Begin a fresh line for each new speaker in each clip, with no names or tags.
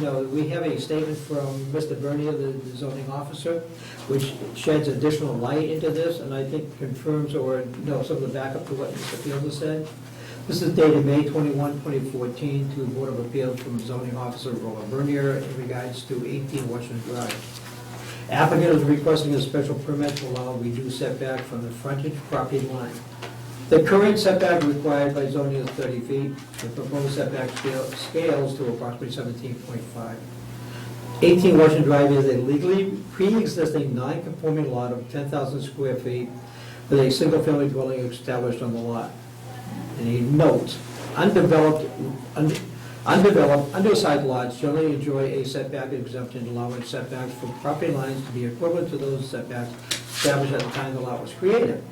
No, we have a statement from Mr. Bernier, the the zoning officer, which sheds additional light into this, and I think confirms or, no, some of the backup to what Mr. Fields has said. This is dated May 21, 2014, to the Board of Appeals from zoning officer Roland Bernier in regards to 18 Washington Drive. Applicant is requesting a special permit to allow reduced setback from the frontage property line. The current setback required by zoning is 30 feet. The proposed setback scale- scales to approximately 17.5. 18 Washington Drive is a legally pre-existing non-conforming lot of 10,000 square feet with a single-family dwelling established on the lot. And he notes, undeveloped, un- undeveloped, undersized lots generally enjoy a setback exemption allowing setbacks from property lines to be equivalent to those setbacks established at the time the lot was created.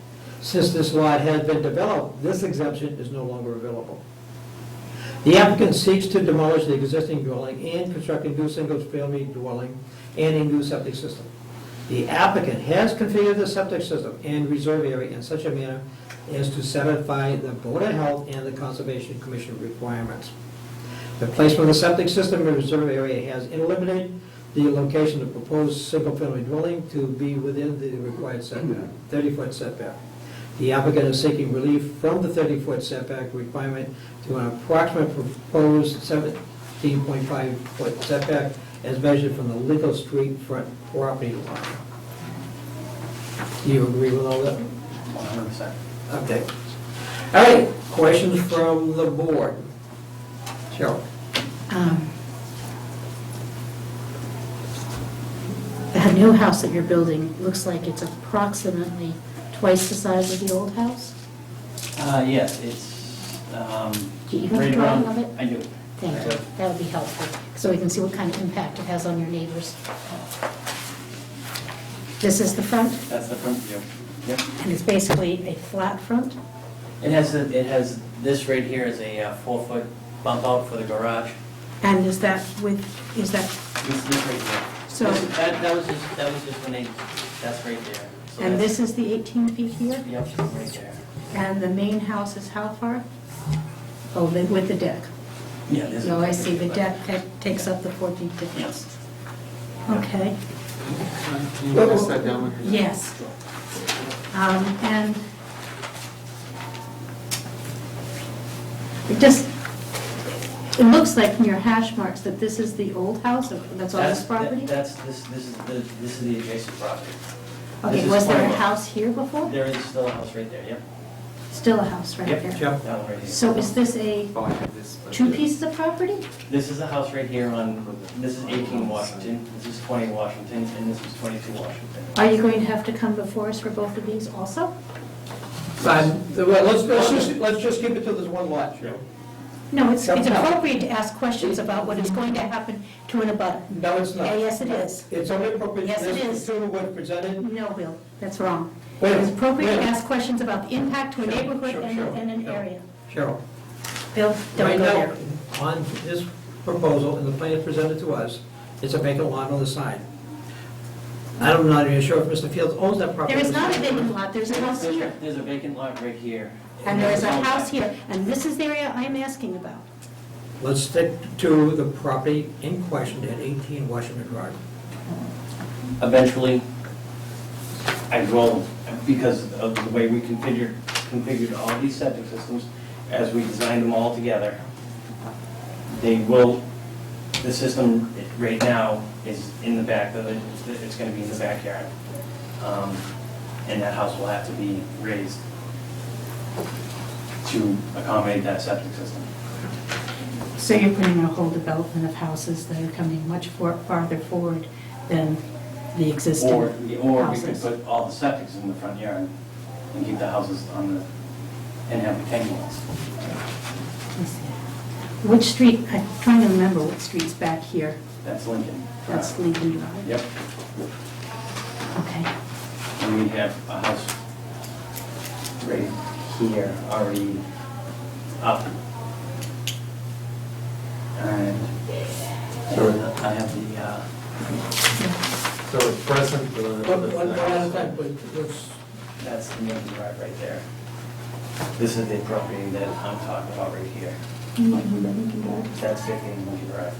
Since this lot has been developed, this exemption is no longer available. The applicant seeks to demolish the existing dwelling and construct a new single-family dwelling and a new septic system. The applicant has configured the septic system and reserve area in such a manner as to satisfy the Board of Health and the Conservation Commission requirements. The placement of the septic system in reserve area has eliminated the location of proposed single-family dwelling to be within the required setback, 30-foot setback. The applicant is seeking relief from the 30-foot setback requirement to an approximate proposed 17.5-foot setback as measured from the legal street front property line. Do you agree with all that?
One hundred percent.
Okay. All right, questions from the board? Cheryl?
Um, The new house that you're building looks like it's approximately twice the size of the old house?
Uh, yes, it's, um.
Do you have a
right around-
drawing of it?
I do.
Thank you, that would be helpful, so we can see what kind of impact it has on your neighbors. This is the front,
That's the front view. Yep.
and it's basically a flat front?
It has, the- it has, this right here is a uh, four-foot bump out for the garage.
And is that with, is that,
This, this right here.
So-
This- That, that was just, that was just when they, that's right there. So
and
that's-
this is the 18 feet here?
Yep, right there.
And the main house is how far? Oh, the- with the deck.
Yeah, this is.
No, Oh, I see, the deck that takes up the 14 difference.
Yes.
Okay,
Can you pass that down?
yes. Um, And it just, it looks like from your hash marks that this is the old house, that's on this
that-
property?
That's, this, this is the, this is the adjacent property. This
Okay,
is
was there a
Cornwall.
house here before?
There is still a house right there, yep.
Still a house right
Yep.
there.
That one right here.
So is this a,
Oh, I have this. but-
two pieces of property?
This is the house right here on, this is 18 Washington, this is 20 Washington, and this is 22 Washington.
Are you going to have to come before us for both of these also?
Well, let's, let's just, let's just keep it to this one lot, Cheryl.
No, it's it's
No, no.
appropriate to ask questions about what is going to happen to an abutter.
No, it's not.
Yeah, Yes, it is.
It's only appropriate,
Yes, it
this
is.
to what presented.
No, Bill, that's wrong.
Wait,
It's appropriate to
wait.
ask questions about the impact to a
Sure,
neighborhood
sure,
and
sure,
and an
sure.
area.
Cheryl?
Bill,
Right
don't go
now,
there.
On this proposal, and the plan presented to us, it's a vacant lot on the side. I'm not even sure if Mr. Fields owns that property.
There is not a vacant lot, there's a house
There's-
here.
There's a vacant lot right here.
And there is a house here, and this is the area I'm asking about.
Let's stick to the property in question at 18 Washington Drive.
Eventually, I will, because of the way we configured, configured all these septic systems, as we designed them all together, they will, the system right now is in the back, of it. it's gonna be in the backyard. Um, And that house will have to be raised to accommodate that septic system.
So you're putting in a whole development of houses that are coming much for- farther forward than the existing
Or, or we could
houses.
put all the septics in the front yard and keep the houses on the, and have retaining walls.
Let's see. Which street, I'm trying to remember what street's back here.
That's Lincoln. Uh,
That's Lincoln Drive.
Yep,
Okay.
and we have a house right here already up. And I have the, uh,
So it's present. but on the-
One one at a time, please. Let's-
that's the main drive right there. This is the property that I'm talking about right here. That's 15 Lincoln Drive.